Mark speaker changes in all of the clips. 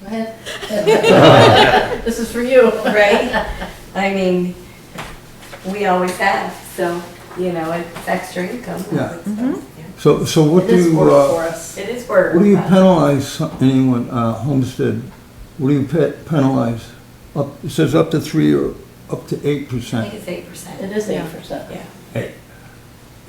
Speaker 1: Go ahead. This is for you.
Speaker 2: right? I mean, we always have, so, you know, it's extra income.
Speaker 3: Yeah.
Speaker 2: So,
Speaker 1: Mm-hmm.
Speaker 3: So, so what do
Speaker 1: This
Speaker 3: you,
Speaker 1: worked for
Speaker 3: uh,
Speaker 1: us.
Speaker 2: It is work.
Speaker 3: what do you penalize anyone, uh, homestead? What do you pe- penalize? Up, it says up to three or up to eight
Speaker 2: I think
Speaker 3: percent.
Speaker 2: it's eight percent.
Speaker 1: It is eight percent.
Speaker 2: Yeah.
Speaker 3: Eight.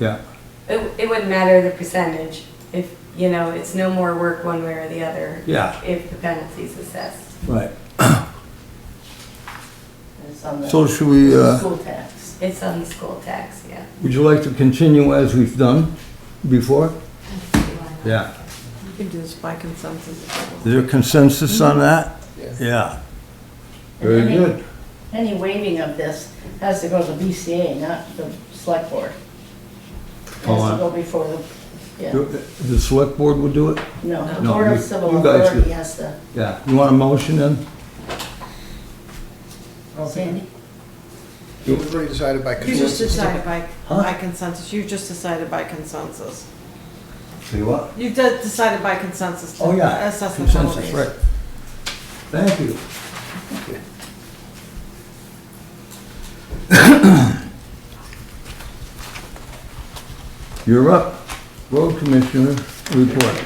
Speaker 3: Yeah,
Speaker 2: It, it wouldn't matter the percentage if, you know, it's no more work one way or the other.
Speaker 3: Yeah.
Speaker 2: If the penalty's assessed.
Speaker 3: right.
Speaker 1: It's on the
Speaker 3: So should we, uh,
Speaker 1: school tax.
Speaker 2: It's on the school tax, yeah.
Speaker 3: would you like to continue as we've done before? Yeah.
Speaker 4: You can do this by consensus. if you want.
Speaker 3: Is there consensus
Speaker 1: Mm-hmm.
Speaker 3: on that? Yeah. Very
Speaker 1: And any-
Speaker 3: good.
Speaker 1: Any waiving of this has to go to BCA, not the select board. It
Speaker 3: Oh,
Speaker 1: Has to
Speaker 3: I-
Speaker 1: go before the, yeah,
Speaker 3: The select board will do it?
Speaker 1: no, the
Speaker 3: No,
Speaker 1: Board
Speaker 3: you-
Speaker 1: of Civil
Speaker 3: you guys
Speaker 1: Authority
Speaker 3: do.
Speaker 1: has to,
Speaker 3: Yeah. You want a motion then?
Speaker 1: Sandy?
Speaker 5: It was already decided by
Speaker 4: You just
Speaker 5: consensus.
Speaker 4: decided by,
Speaker 3: Huh?
Speaker 4: by consensus, you just decided by consensus.
Speaker 3: See what?
Speaker 4: You de- decided by consensus
Speaker 3: Oh,
Speaker 4: to
Speaker 3: yeah.
Speaker 4: assess the
Speaker 3: Consensus, right.
Speaker 4: penalties.
Speaker 3: Thank you. You're up. Road Commissioner report.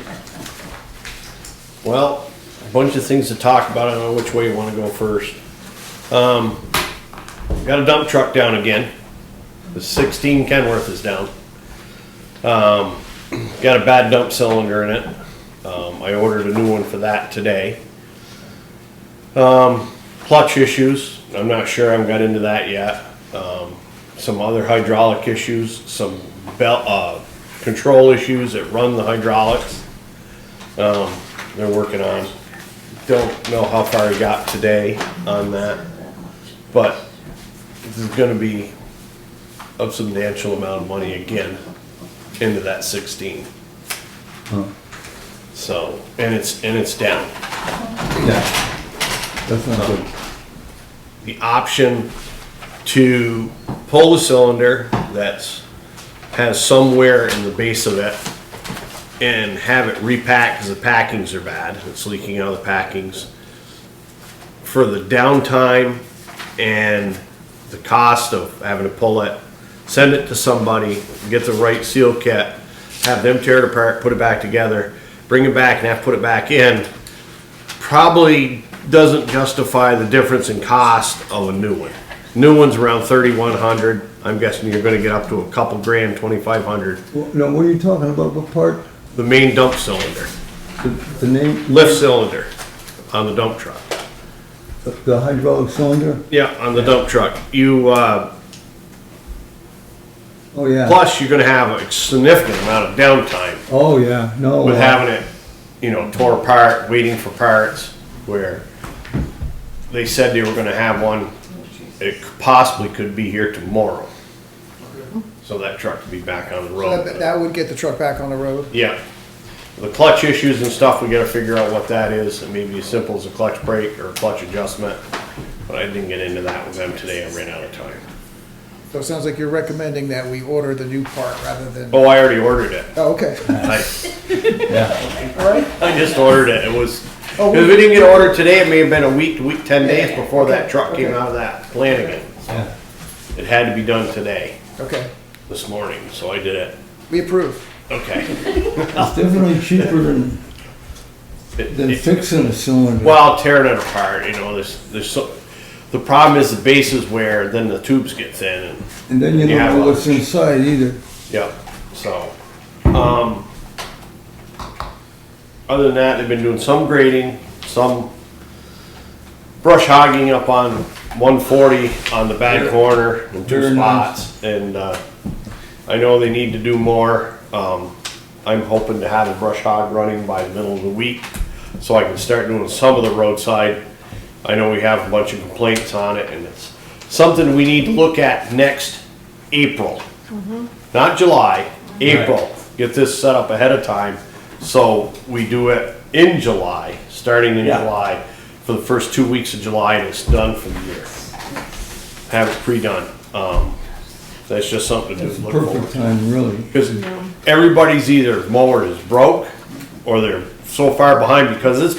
Speaker 6: Well, a bunch of things to talk about. I don't know which way you want to go first. Um, got a dump truck down again. The 16 Kenworth is down. Um, got a bad dump cylinder in it. Um, I ordered a new one for that today. Um, clutch issues. I'm not sure. I haven't got into that yet. Um, some other hydraulic issues, some belt, uh, control issues that run the hydraulics um, they're working on. Don't know how far he got today on that, but this is gonna be a substantial amount of money again into that sixteen.
Speaker 3: Huh.
Speaker 6: So, and it's, and it's down.
Speaker 3: Yeah. That's not good.
Speaker 6: the option to pull the cylinder that's, has some wear in the base of it and have it repacked because the packings are bad, it's leaking out of the packings. For the downtime and the cost of having to pull it, send it to somebody, get the right seal kit, have them tear it apart, put it back together, bring it back and have to put it back in probably doesn't justify the difference in cost of a new one. New one's around thirty-one hundred, I'm guessing you're gonna get up to a couple grand, twenty-five hundred.
Speaker 3: Well, No, what are you talking about? What part?
Speaker 6: The main dump cylinder,
Speaker 3: The the name?
Speaker 6: lift cylinder on the dump truck.
Speaker 3: The hydraulic cylinder?
Speaker 6: Yeah, on the dump truck. You, uh,
Speaker 3: Oh, yeah.
Speaker 6: plus you're gonna have a significant amount of downtime
Speaker 3: Oh, yeah. No.
Speaker 6: with
Speaker 3: uh,
Speaker 6: having it, you know, tore apart, waiting for parts, where they said they were gonna have one, it possibly could be here tomorrow. So that truck could be back on the
Speaker 5: So That
Speaker 6: road.
Speaker 5: that would get the truck back on the road.
Speaker 6: Yeah. The clutch issues and stuff, we gotta figure out what that is, it may be as simple as a clutch brake or a clutch adjustment, but I didn't get into that with them today, I ran out of time.
Speaker 5: So it sounds like you're recommending that we order the new part rather than,
Speaker 6: Oh, I already ordered it.
Speaker 5: oh, okay,
Speaker 6: I,
Speaker 3: Yeah.
Speaker 5: all right.
Speaker 6: I just ordered it, it was,
Speaker 5: Oh,
Speaker 6: Because we didn't get ordered today, it may have been a week, week, ten days before that truck came
Speaker 5: okay.
Speaker 6: out of that Flanagan.
Speaker 3: Yeah.
Speaker 6: It had to be done today,
Speaker 5: Okay,
Speaker 6: this morning, so I did it.
Speaker 5: we approve.
Speaker 6: Okay.
Speaker 3: It's definitely cheaper than,
Speaker 6: It-
Speaker 3: than
Speaker 6: it-
Speaker 3: fixing a cylinder.
Speaker 6: Well, tearing it apart, you know, there's, there's so, the problem is the base is wear, then the tubes get thin and,
Speaker 3: And then you don't
Speaker 6: Yeah,
Speaker 3: know
Speaker 6: well-
Speaker 3: what's inside either.
Speaker 6: yep, so. Um, other than that, they've been doing some grading, some brush hogging up on one forty on the back corner in two
Speaker 3: Very nice.
Speaker 6: spots. And, uh, I know they need to do more. Um, I'm hoping to have a brush hog running by the middle of the week, so I can start doing some of the roadside. I know we have a bunch of complaints on it, and it's something we need to look at next April. Not July, April. Get this set up ahead of time, so we do it in July, starting in
Speaker 3: Yeah.
Speaker 6: July, for the first two weeks of July, and it's done for the year. Have it pre-done. Um, that's just something to
Speaker 3: It's the
Speaker 6: look forward
Speaker 3: perfect
Speaker 6: to.
Speaker 3: time, really.
Speaker 6: Because everybody's either mower is broke or they're so far behind because it's